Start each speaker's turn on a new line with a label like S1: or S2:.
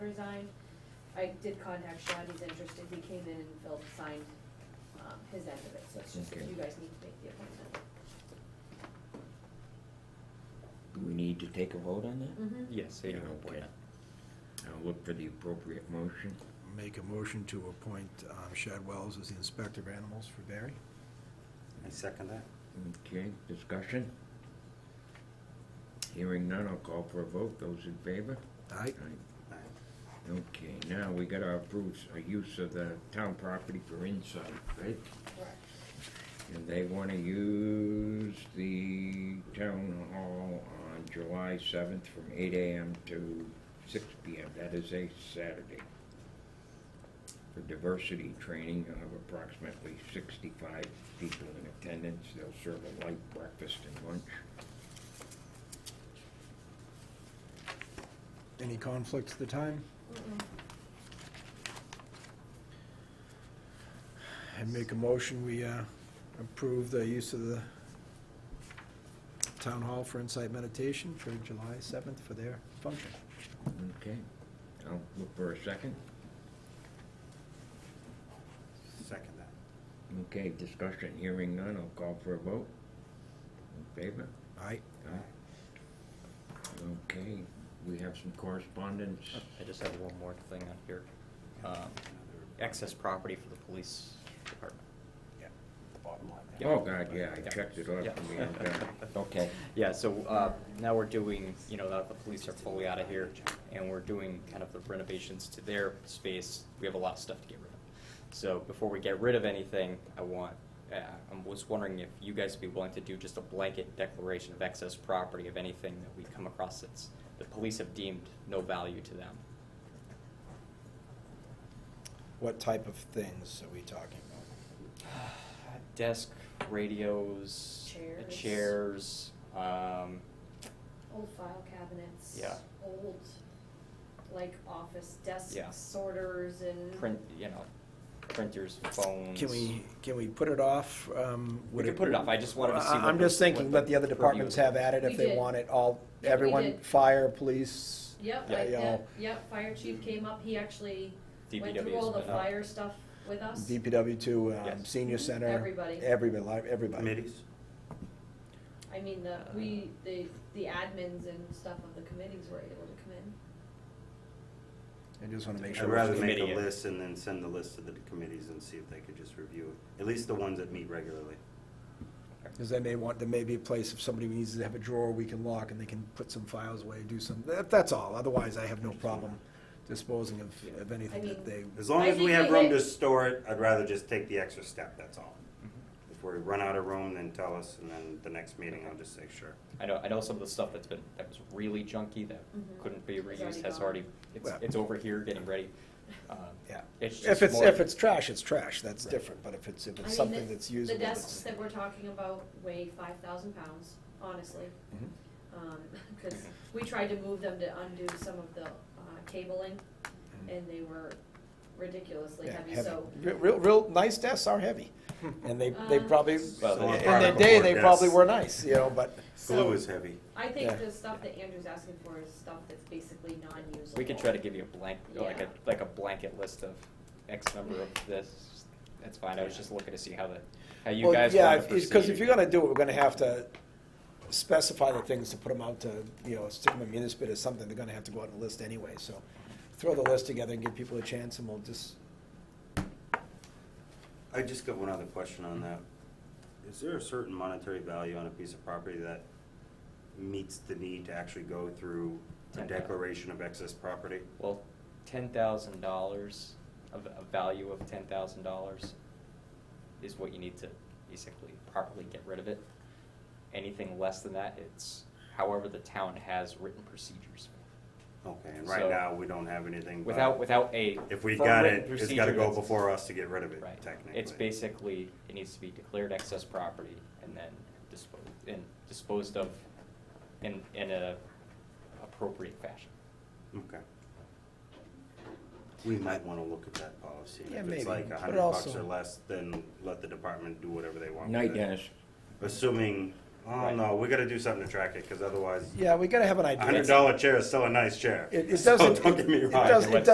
S1: design. I did contact Shad, he's interested, he came in and Phil signed, um, his end of it, so it's just,
S2: Okay.
S1: you guys need to make the appointment.
S2: Do we need to take a vote on that?
S1: Mm-hmm.
S3: Yes,
S2: Yeah, okay. I'll look for the appropriate motion.
S4: Make a motion to appoint um, Shad Wells as the Inspector of Animals for Barry.
S3: I second that.
S2: Okay, discussion? Hearing none, I'll call for a vote. Those in favor?
S4: Aye?
S3: Aye.
S2: Okay, now we gotta approve a use of the town property for insight, right?
S1: Correct.
S2: And they wanna use the town hall on July seventh from eight AM to six PM. That is a Saturday. For diversity training, you'll have approximately sixty-five people in attendance. They'll serve a light breakfast and lunch.
S4: Any conflicts at the time?
S1: Mm-mm.
S4: And make a motion, we uh, approve the use of the town hall for insight meditation for July 7th for their function.
S2: Okay, I'll look for a second.
S3: Second that.
S2: Okay, discussion, hearing none, I'll call for a vote. In favor?
S4: Aye?
S2: Okay, we have some correspondence.
S5: Oh, I just have one more thing on here. Um, Excess property for the police department.
S4: Yeah, the bottom line.
S5: Yeah.
S2: Oh, God, yeah, I
S5: Yeah.
S2: checked it off
S5: Yeah.
S2: and we are done. Okay.
S5: Yeah, so uh, now we're doing, you know, now the police are fully out of here, and we're doing kind of the renovations to their space. We have a lot of stuff to get rid of. So before we get rid of anything, I want, uh, I was wondering if you guys would be willing to do just a blanket declaration of excess property of anything that we come across that's, the police have deemed no value to them.
S4: What type of things are we talking about?
S5: Desk, radios, uh,
S1: Chairs.
S5: chairs, um,
S1: Old file cabinets.
S5: Yeah.
S1: Old, like, office desks,
S5: Yeah.
S1: sorters and.
S5: print, you know, printers, phones.
S4: Can we, can we put it off? um,
S5: We
S4: would
S5: could put it off. I just wanted to
S4: Well,
S5: see
S4: I-
S5: what
S4: I'm
S5: the-
S4: just thinking,
S5: what
S4: let the other
S5: the purview
S4: departments
S5: is.
S4: have at it
S1: We
S4: if they
S1: did.
S4: want it, all,
S1: Yeah, we
S4: everyone,
S1: did.
S4: fire, police.
S1: Yep,
S5: Yeah.
S1: like,
S4: you know,
S1: yep, yep, fire chief came up, he actually went
S5: DPW
S1: through
S5: has
S1: all the
S5: been up.
S1: flyer stuff with us.
S4: DPW to um,
S5: Yes.
S4: senior center.
S1: Everybody.
S4: Everybody, li- everybody.
S3: Committees?
S1: I mean, the,
S5: Uh.
S1: we, the, the admins and stuff of the committees were able to come in.
S4: I just want to make
S3: I'd
S4: sure. we're
S3: rather
S4: doing-
S3: make a
S5: Committee.
S3: list and then send the list to the committees and see if they could just review it, at least the ones that meet regularly.
S4: Because they may want, there may be a place if somebody needs to have a drawer we can lock and they can put some files away, do some, that, that's all. Otherwise, I have no problem disposing of, of anything that they.
S3: As long
S1: I
S3: as we
S1: think
S3: have
S1: we
S3: room
S1: had-
S3: to store it, I'd rather just take the extra step, that's all.
S4: Mm-hmm.
S3: If we run out of room, then tell us, and then the next meeting, I'll just say, sure.
S5: I know, I know some of the stuff that's been, that was really junky, that
S1: Mhm.
S5: couldn't be
S1: It's already
S5: reused, has
S1: gone.
S5: already, it's,
S4: Well-
S5: it's over here getting ready. Um,
S4: Yeah.
S5: It's
S4: If
S5: just
S4: it's,
S5: more-
S4: if it's trash, it's trash. That's
S5: Right.
S4: different. But if it's, if
S1: I mean,
S4: it's something
S1: the-
S4: that's usable.
S1: The desks
S4: that's-
S1: that we're talking about weigh five thousand pounds, honestly.
S4: Mhm.
S1: Um 'cause cause we tried to move them to undo some of the, uh, cabling and they were ridiculously
S4: Mm-hmm. Yeah,
S1: heavy, so.
S4: Re- Real, real nice desks are heavy, and they, they
S1: Uh,
S4: probably,
S5: Well, they
S4: in
S5: are
S4: their day,
S3: cardboard
S4: they probably
S3: desks.
S4: were nice, you know, but.
S1: So-
S3: Glue is heavy.
S1: I think
S4: Yeah.
S1: the stuff that Andrew's asking for is stuff that's basically non-usable.
S5: We could try to give you a blank, like a,
S1: Yeah.
S5: like a blanket list of X number of this, that's fine, I was just looking to see how the, how you
S4: Well,
S5: guys
S4: yeah,
S5: wanted to
S4: Because if
S5: proceed.
S4: you're gonna do it, we're gonna have to specify the things to put them out to, you know, stick them in municipal or something, they're gonna have to go out and list anyway, so. Throw the list together and give people a chance and we'll just,
S3: I just got one other question on that. Is there a certain monetary value on a piece of property that meets the need to actually go through a
S5: Ten thousand.
S3: declaration of excess property?
S5: Well, ten thousand dollars, of a value of ten thousand dollars is what you need to basically properly get rid of it. Anything less than that, it's however the town has written procedures.
S3: Okay, and right
S5: So-
S3: now, we don't have anything. but
S5: Without, without a.
S3: If we
S5: firm
S3: got
S5: written
S3: it, it's gotta
S5: procedure
S3: go
S5: that's-
S3: before us to get rid of it,
S5: Right.
S3: technically.
S5: It's basically, it needs to be declared excess property and then disposed, and disposed of in, in a appropriate fashion.
S3: Okay. We might wanna look at that policy. and
S4: Yeah,
S3: If
S4: maybe,
S3: it's like
S4: but
S3: a hundred bucks
S4: also-
S3: or less, then let the department do whatever they want
S2: Night
S3: with it.
S2: Dennis.
S3: Assuming, oh
S5: Right.
S3: no, we gotta do something to track it, cause otherwise,
S4: yeah, we gotta have an
S3: a hundred
S4: idea.
S3: dollar chair is still a nice chair.
S4: It- it
S3: So
S4: doesn't-
S3: Don't get me
S4: it
S3: wrong.
S4: does- it
S3: Let's-